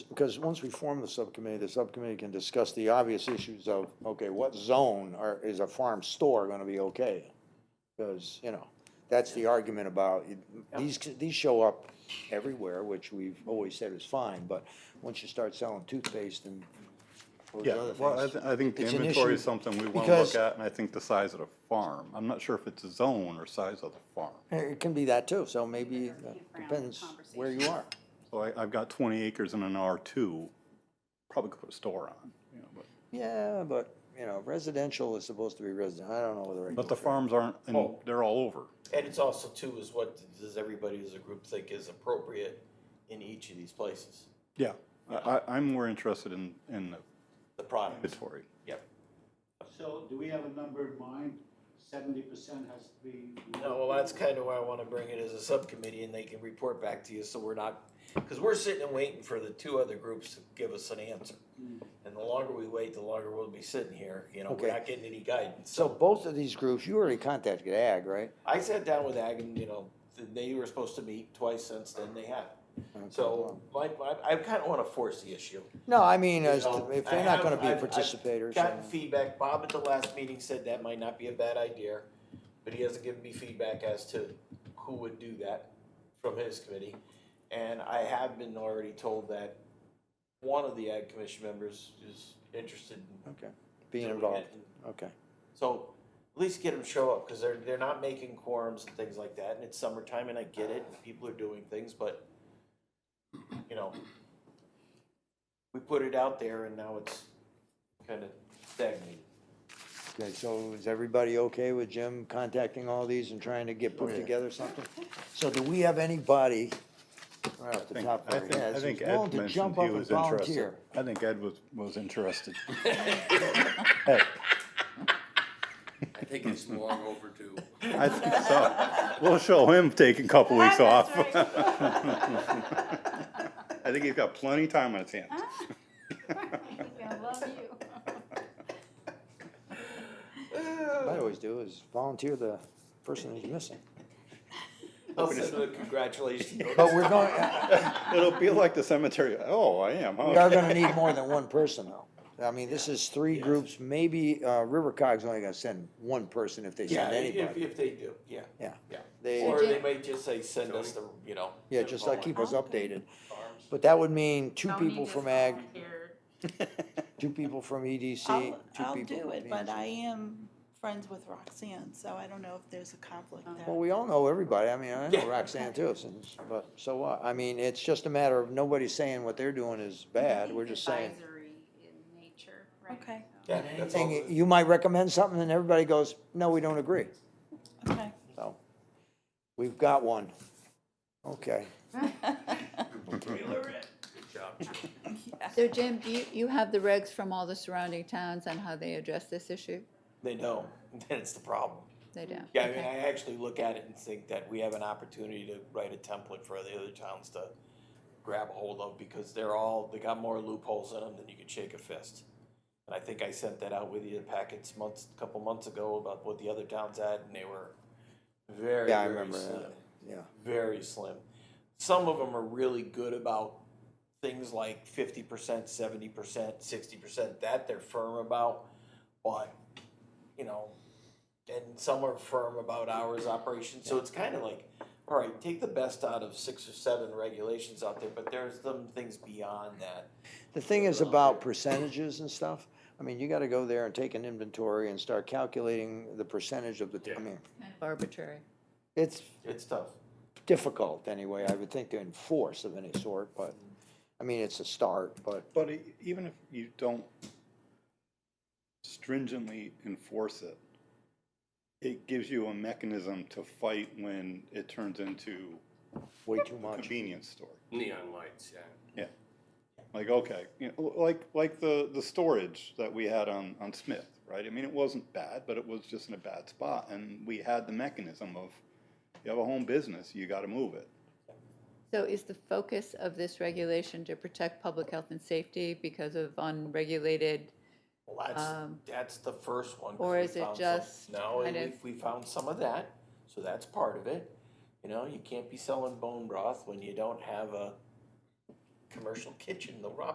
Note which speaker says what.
Speaker 1: because once we form the subcommittee, the subcommittee can discuss the obvious issues of, okay, what zone are, is a farm store gonna be okay? Because, you know, that's the argument about, these, these show up everywhere, which we've always said is fine, but once you start selling toothpaste and those
Speaker 2: Yeah,
Speaker 1: other
Speaker 2: well, I,
Speaker 1: things.
Speaker 2: th- I think the
Speaker 1: it's an
Speaker 2: inventory
Speaker 1: issue
Speaker 2: is something we want to
Speaker 1: because-
Speaker 2: look at, and I think the size of the farm. I'm not sure if it's a zone or size of the farm.
Speaker 1: It can be that too, so maybe
Speaker 3: Keep around
Speaker 1: that
Speaker 3: the
Speaker 1: depends where you are.
Speaker 2: So I, I've got twenty acres in an R two, probably could put a store on, you know, but,
Speaker 1: Yeah, but, you know, residential is supposed to be resident, I don't know whether. I
Speaker 2: but
Speaker 1: can-
Speaker 2: the farms aren't, and
Speaker 4: Oh.
Speaker 2: they're all over.
Speaker 4: And it's also too, is what does everybody as a group think is appropriate in each of these places,
Speaker 2: Yeah, I, I, I'm more interested in, in the
Speaker 4: the products?
Speaker 2: inventory.
Speaker 4: Yep.
Speaker 5: So do we have a number in mind? Seventy percent has to be.
Speaker 4: No, well, that's kind of why I want to bring it as a subcommittee and they can report back to you, so we're not, because we're sitting and waiting for the two other groups to give us an answer. And the longer we wait, the longer we'll be sitting here, you know,
Speaker 1: Okay.
Speaker 4: we're not getting any guidance.
Speaker 1: So both of these groups, you already contacted Ag, right?
Speaker 4: I sat down with Ag and, you know, th- they were supposed to meet twice since then, they haven't. So my, my, I kind of want to force the issue.
Speaker 1: No, I mean,
Speaker 4: you
Speaker 1: as, to-
Speaker 4: know.
Speaker 1: if
Speaker 4: I
Speaker 1: they're not gonna
Speaker 4: have-
Speaker 1: be
Speaker 4: I've- I've
Speaker 1: participators.
Speaker 4: Gotten
Speaker 1: then-
Speaker 4: feedback, Bob at the last meeting said that might not be a bad idea, but he hasn't given me feedback as to who would do that from his committee. And I have been already told that one of the ag commission members is interested in
Speaker 1: Okay, being
Speaker 4: doing it.
Speaker 1: involved, okay.
Speaker 4: So at least get them show up, because they're, they're not making quorums and things like that, and it's summertime, and I get it, and people are doing things, but, you know, we put it out there and now it's kind of stagnated.
Speaker 1: Okay, so is everybody okay with Jim contacting all these and trying to get
Speaker 2: Oh,
Speaker 1: put together something? So do we have anybody, right off the
Speaker 2: think-
Speaker 1: top of
Speaker 2: I
Speaker 1: our
Speaker 2: think- I
Speaker 1: heads,
Speaker 2: think
Speaker 1: who's
Speaker 2: Ed
Speaker 1: willing to
Speaker 2: mentioned
Speaker 1: jump
Speaker 2: he
Speaker 1: up and
Speaker 2: was interested.
Speaker 1: volunteer?
Speaker 2: I think Ed was, was interested. Ed,
Speaker 6: I think it's long overdue.
Speaker 2: I think so. We'll show him taking a couple weeks off.
Speaker 3: That's
Speaker 2: I think he's got plenty of time on his
Speaker 3: Ah,
Speaker 2: hands.
Speaker 3: I love you.
Speaker 1: What I always do is volunteer the person who's missing.
Speaker 4: I'll send them a Oh, congratulations notice.
Speaker 1: But Oh, we're going, uh,
Speaker 2: It'll be like the cemetery. Oh, I am, huh?
Speaker 1: we are gonna need more than one person though. I mean, this is three groups, maybe, uh, River Cog's only gonna send one person if they
Speaker 4: Yeah,
Speaker 1: send
Speaker 4: if,
Speaker 1: anybody.
Speaker 4: if they do, yeah,
Speaker 1: Yeah,
Speaker 4: yeah.
Speaker 1: They-
Speaker 4: Or they may just say, send us the, you know.
Speaker 1: yeah, just like keep us
Speaker 7: Okay.
Speaker 1: updated. But that would mean two
Speaker 7: Tony
Speaker 1: people
Speaker 7: just
Speaker 1: from Ag,
Speaker 7: volunteered.
Speaker 1: two people from EDC, two
Speaker 7: I'll,
Speaker 1: people.
Speaker 7: I'll
Speaker 1: from
Speaker 7: do it, but
Speaker 1: P&Z.
Speaker 7: I am friends with Roxanne, so I don't know if there's a conflict
Speaker 3: Oh.
Speaker 1: Well,
Speaker 7: there.
Speaker 1: we all know everybody, I mean, I know
Speaker 4: Yeah.
Speaker 1: Roxanne too, since, but, so what, I mean, it's just a matter of nobody's saying what they're doing is bad, we're just saying.
Speaker 3: Advisory in nature, right?
Speaker 7: Okay.
Speaker 3: So-
Speaker 4: Yeah, that's all.
Speaker 1: And you might recommend something and everybody goes, no, we don't agree,
Speaker 7: Okay.
Speaker 1: so, we've got one, okay.
Speaker 8: So Jim, do you, you have the regs from all the surrounding towns on how they address this issue?
Speaker 4: They know, that's the problem.
Speaker 8: They don't?
Speaker 4: Yeah, I mean,
Speaker 8: Okay.
Speaker 4: I actually look at it and think that we have an opportunity to write a template for the other towns to grab a hold of because they're all, they got more loopholes in them than you could shake a fist. And I think I sent that out with you in packets months, a couple months ago about what the other towns had and they were very,
Speaker 1: Yeah, I
Speaker 4: very
Speaker 1: remember that.
Speaker 4: slim.
Speaker 1: Yeah.
Speaker 4: Very slim. Some of them are really good about things like fifty percent, seventy percent, sixty percent, that they're firm about. But, you know, and some are firm about hours operation, so it's kind of like, all right, take the best out of six or seven regulations out there, but there's some things beyond that.
Speaker 1: The thing is about percentages and stuff, I mean, you gotta go there and take an inventory and start calculating the percentage of the, I mean,
Speaker 8: Arbitrary.
Speaker 1: it's
Speaker 4: It's tough.
Speaker 1: difficult anyway, I would think, to enforce of any sort, but, I mean, it's a start, but,
Speaker 2: But e- even if you don't stringently enforce it, it gives you a mechanism to fight when it turns into
Speaker 1: way too
Speaker 2: a
Speaker 1: much.
Speaker 2: convenience store.
Speaker 6: Neon lights, yeah.
Speaker 2: Yeah. Like, okay, you know, like, like the, the storage that we had on, on Smith, right? I mean, it wasn't bad, but it was just in a bad spot, and we had the mechanism of, you have a home business, you gotta move it.
Speaker 8: So is the focus of this regulation to protect public health and safety because of unregulated?
Speaker 4: Well, that's,
Speaker 8: Um,
Speaker 4: that's the first one. 'cause
Speaker 8: or
Speaker 4: we
Speaker 8: is it
Speaker 4: found some-
Speaker 8: just
Speaker 4: No,
Speaker 8: kind
Speaker 4: we,
Speaker 8: of-
Speaker 4: we found some of that, so that's part of it. You know, you can't be selling bone broth when you don't have a commercial kitchen, the raw